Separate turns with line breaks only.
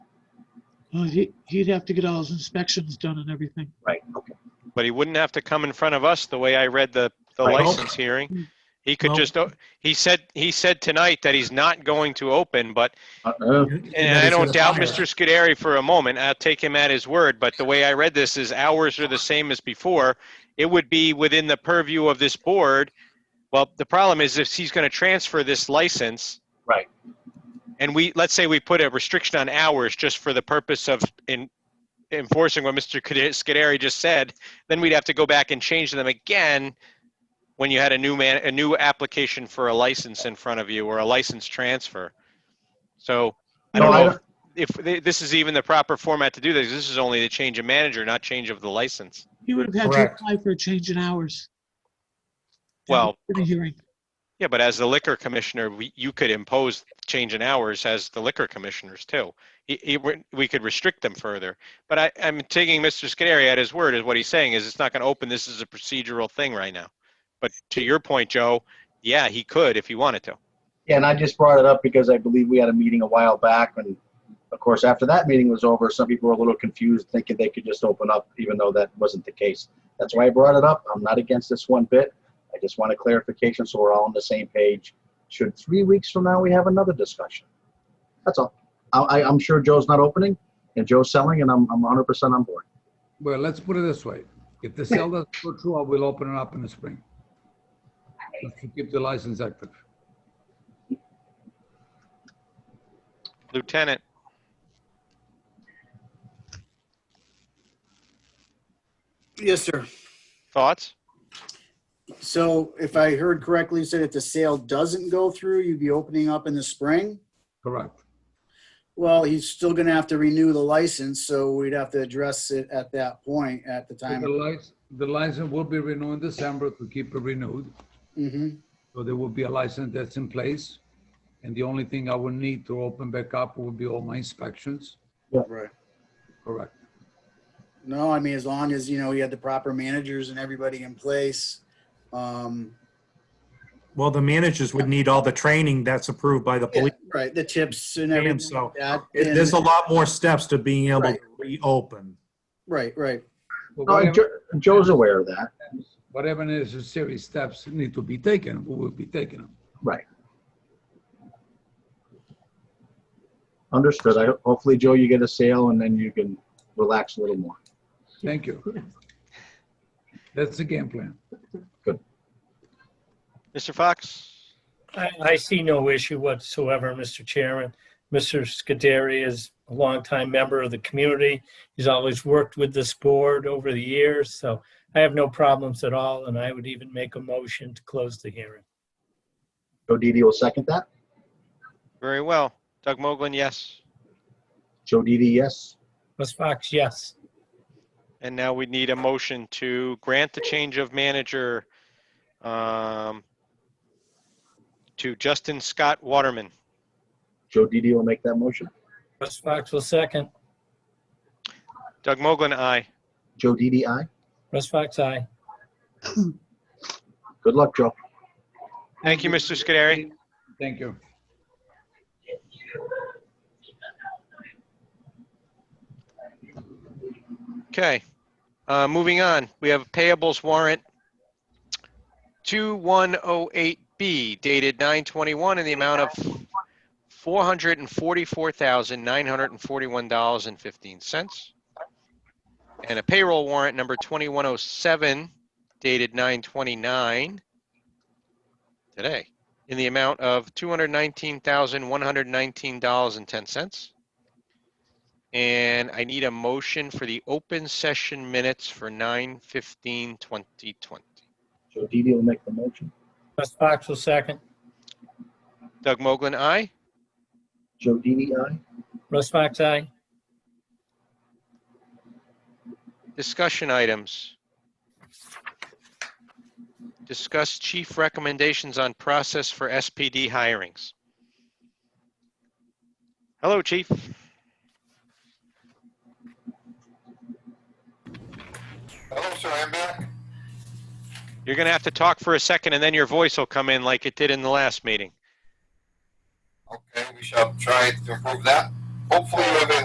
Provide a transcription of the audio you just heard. Well, he, he'd have to get all his inspections done and everything.
Right, okay.
But he wouldn't have to come in front of us the way I read the, the
Right.
license hearing. He could
No.
just, o- he said, he said tonight that he's not going to open, but,
Uh,
and I don't doubt Mr. Scuderi for a moment, I'll take him at his word, but the way I read this is hours are the same as before. It would be within the purview of this board. Well, the problem is if he's going to transfer this license.
Right.
And we, let's say we put a restriction on hours just for the purpose of in enforcing what Mr. Cade- Scuderi just said, then we'd have to go back and change them again when you had a new man, a new application for a license in front of you or a license transfer. So I
No,
don't
I
know if if th- this is even the proper format to do this. This is only the change of manager, not change of the license.
He would have had to
Correct.
apply for a change in hours.
Well-
In a hearing.
Yeah, but as the liquor commissioner, we, you could impose change in hours as the liquor commissioners too. He- he- we- we could restrict them further. But I, I'm taking Mr. Scudery at his word is what he's saying is it's not going to open. This is a procedural thing right now. But to your point, Joe, yeah, he could if he wanted to.
Yeah, and I just brought it up because I believe we had a meeting a while back, and of course, after that meeting was over, some people were a little confused, thinking they could just open up, even though that wasn't the case. That's why I brought it up. I'm not against this one bit. I just want a clarification so we're all on the same page. Should three weeks from now we have another discussion? That's all. I, I, I'm sure Joe's not opening, and Joe's selling, and I'm, I'm 100% on board.
Well, let's put it this way. If the sale doesn't go through, I will open it up in the spring. Just to Keep the license active.
Lieutenant,
Yes, sir.
thoughts?
So if I heard correctly, you said if the sale doesn't go through, you'd be opening up in the spring?
Correct.
Well, he's still gonna have to renew the license, so we'd have to address it at that point, at the
So
time.
The license, the license will be renewed in December to keep it renewed.
Mhm.
So there will be a license that's in place. And the only thing I will need to open back up will be all my inspections.
Right.
Correct.
No, I mean, as long as, you know, you had the proper managers and everybody in place. Um,
Well, the managers would need all the training that's approved by the
yeah,
police.
right, the tips and
And
everything.
so,
like that,
It- There's a
and-
lot more steps to being able
Right.
to reopen.
Right, right,
But
No,
whatever-
Jo- Joe's aware of that.
whatever necessary steps need to be taken, we will be taking them.
Right. Understood. I, hopefully, Joe, you get a sale and then you can relax a little more.
Thank you. That's the game plan.
Mr. Fox?
I, I see no issue whatsoever, Mr. Chairman. Mr. Scuderi is a longtime member of the community. He's always worked with this board over the years, so I have no problems at all, and I would even make a motion to close the hearing.
Joe Didi will second that.
Very well. Doug Moglen, yes.
Joe Didi, yes.
Ms. Fox, yes.
And now we need a motion to grant the change of manager um, to Justin Scott Waterman.
Joe Didi will make that motion.
Ms. Fox will second.
Doug Moglen, aye.
Joe Didi, aye.
Ms. Fox, aye.
Good luck, Joe.
Thank you, Mr. Scuderi.
Thank you.
Okay, uh, moving on. We have payables warrant 2108B dated 921 in the amount of $444,941.15. And a payroll warrant number 2107 dated 929 today in the amount of $219,119.10. And I need a motion for the open session minutes for 9:15:2020.
Joe Didi will make the motion.
Ms. Fox will second.
Doug Moglen, aye.
Joe Didi, aye.
Ms. Fox, aye.
Discussion items. Discuss chief recommendations on process for SPD hirings. Hello, chief.
Hello, sir, I'm back.
You're gonna have to talk for a second and then your voice will come in like it did in the last meeting.
Okay, we shall try to improve that. Hopefully you have a